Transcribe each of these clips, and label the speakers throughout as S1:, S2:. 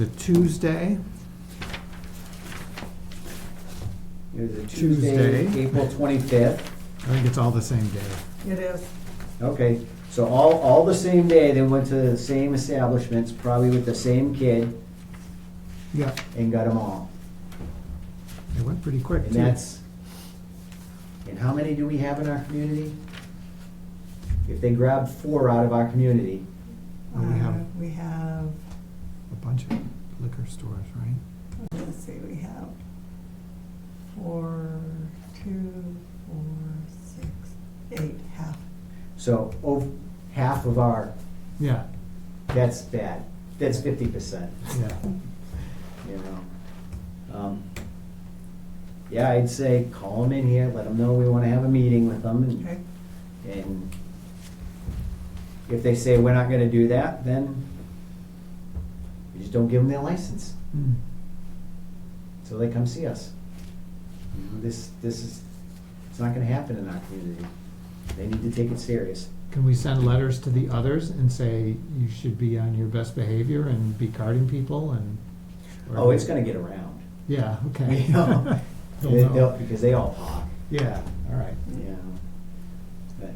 S1: The Tuesday,
S2: It was a Tuesday,
S1: Tuesday.
S2: April twenty-fifth.
S1: I think it's all the same day.
S3: It is.
S2: Okay, so all, all the same day, they went to the same establishments, probably with the same kid,
S1: Yeah,
S2: and got them all.
S1: it went pretty quick
S2: And
S1: too.
S2: that's, and how many do we have in our community? If they grab four out of our community,
S1: Well, we have-
S3: Uh, We have,
S1: A bunch of liquor stores, right?
S3: let's see, we have four, two, four, six, eight, half.
S2: so over half of our,
S1: Yeah,
S2: that's bad. That's fifty percent,
S1: yeah.
S2: you know? Um, Yeah, I'd say call them in here, let them know we wanna have a meeting with them and,
S3: Okay,
S2: and if they say we're not gonna do that, then we just don't give them their license.
S1: Mm.
S2: So they come see us. You know, This, this is, it's not gonna happen in our community. They need to take it serious.
S1: Can we send letters to the others and say you should be on your best behavior and be carding people and? or-
S2: Oh, it's gonna get around.
S1: Yeah, okay.
S2: You know,
S1: They'll
S2: They-
S1: know.
S2: they'll- Because they all talk,
S1: Yeah, all right.
S2: you know. But,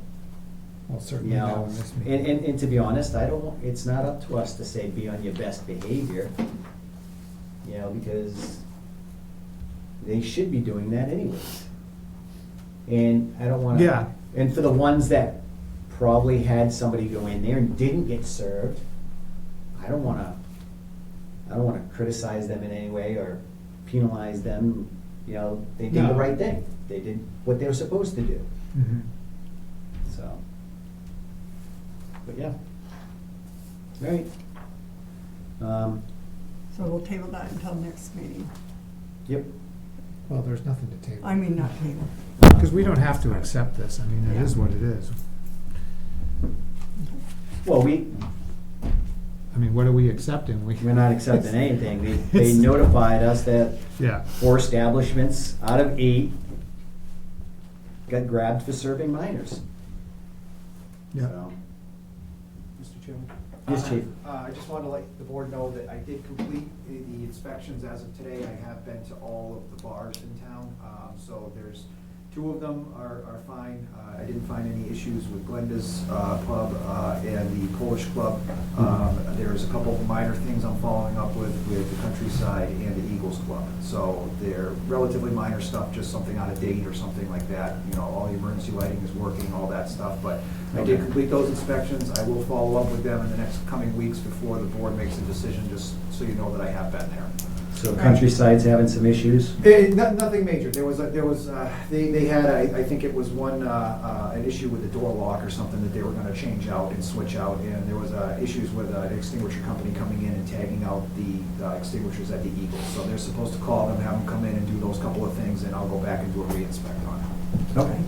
S1: Well, certainly
S2: you
S1: that
S2: know,
S1: one missed me.
S2: and, and, and to be honest, I don't, it's not up to us to say be on your best behavior. You know, because they should be doing that anyways. And I don't wanna.
S1: Yeah.
S2: And for the ones that probably had somebody go in there and didn't get served, I don't wanna, I don't wanna criticize them in any way or penalize them. You know, they did the
S1: No.
S2: right thing. They did what they were supposed to do,
S1: Mhm.
S2: so. But yeah. All right. Um,
S3: so we'll table that until next meeting.
S2: yep.
S1: Well, there's nothing to table.
S3: I mean, not table.
S1: Because we don't have to accept this. I mean, it is what it is.
S2: Well, we,
S1: I mean, what are we accepting? We-
S2: we're not accepting anything. They, they notified us that
S1: Yeah,
S2: four establishments out of eight got grabbed for serving minors.
S1: yeah.
S2: So,
S4: Mr. Chairman?
S2: Yes, Chief.
S4: Uh, I just wanted to let the board know that I did complete the the inspections as of today. I have been to all of the bars in town. Um, So there's, two of them are, are fine. Uh, I didn't find any issues with Glenda's uh, Pub uh, and the Polish Club. Um, There's a couple of minor things I'm following up with, with the Countryside and the Eagles Club. So they're relatively minor stuff, just something out of date or something like that. You know, all the emergency lighting is working, all that stuff. But I did
S2: Okay.
S4: complete those inspections. I will follow up with them in the next coming weeks before the board makes a decision, just so you know that I have been there.
S2: So Countryside's having some issues?
S4: Eh, no- Nothing major. There was, a- there was, uh, they, they had, I, I think it was one, uh, uh, an issue with the door lock or something that they were gonna change out and switch out. And there was, uh, issues with uh, an extinguisher company coming in and tagging out the uh, extinguishers at the Eagle. So they're supposed to call them, have them come in and do those couple of things, and I'll go back and do a re-inspect on it.
S2: Okay.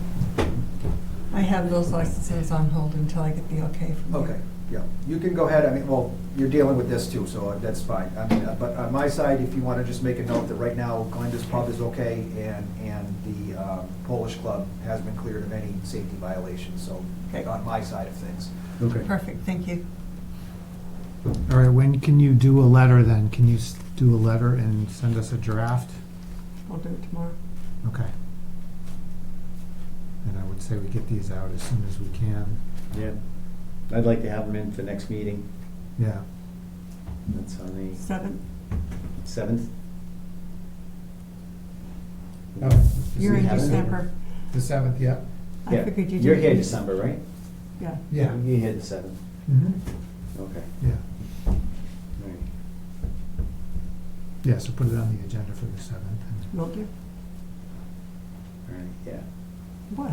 S3: I have those licenses on hold until I get the okay from you.
S4: Okay, yeah. You can go ahead. I mean, well, you're dealing with this too, so that's fine. I mean, uh, but on my side, if you wanna just make a note that right now Glenda's Pub is okay and, and the uh, Polish Club has been cleared of any safety violations, so
S3: Okay.
S4: on my side of things.
S2: Okay.
S3: Perfect, thank you.
S1: All right, when can you do a letter then? Can you s- do a letter and send us a draft?
S3: I'll do it tomorrow.
S1: Okay. And I would say we get these out as soon as we can.
S2: Yeah. I'd like to have them in for next meeting.
S1: Yeah,
S2: That's on the
S3: Seven,
S2: seventh.
S1: Oh.
S3: you're in
S2: Does he have it?
S3: December.
S1: the seventh, yeah.
S3: I figured you did.
S2: You're here December, right?
S3: Yeah.
S1: Yeah.
S2: You're here the seventh.
S1: Mhm.
S2: Okay.
S1: Yeah,
S2: All right.
S1: yeah, so put it on the agenda for the seventh. and-
S3: Will do.
S2: All right, yeah.
S3: What?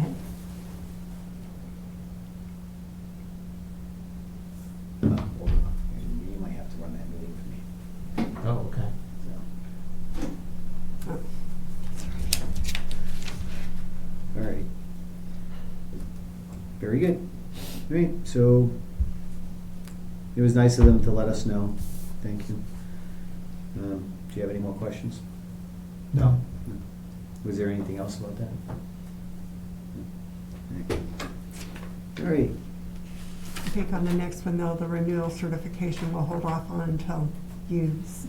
S2: Uh, hold on. You might have to run that meeting for me.
S1: Oh, okay.
S2: so.
S3: Oh,
S2: All right. Very good. All right, so it was nice of them to let us know. Thank you. Um, Do you have any more questions?
S1: No,
S2: Was there anything else about that? No. All right,
S3: I think on the next one, though, the renewal certification, we'll hold off on until you s-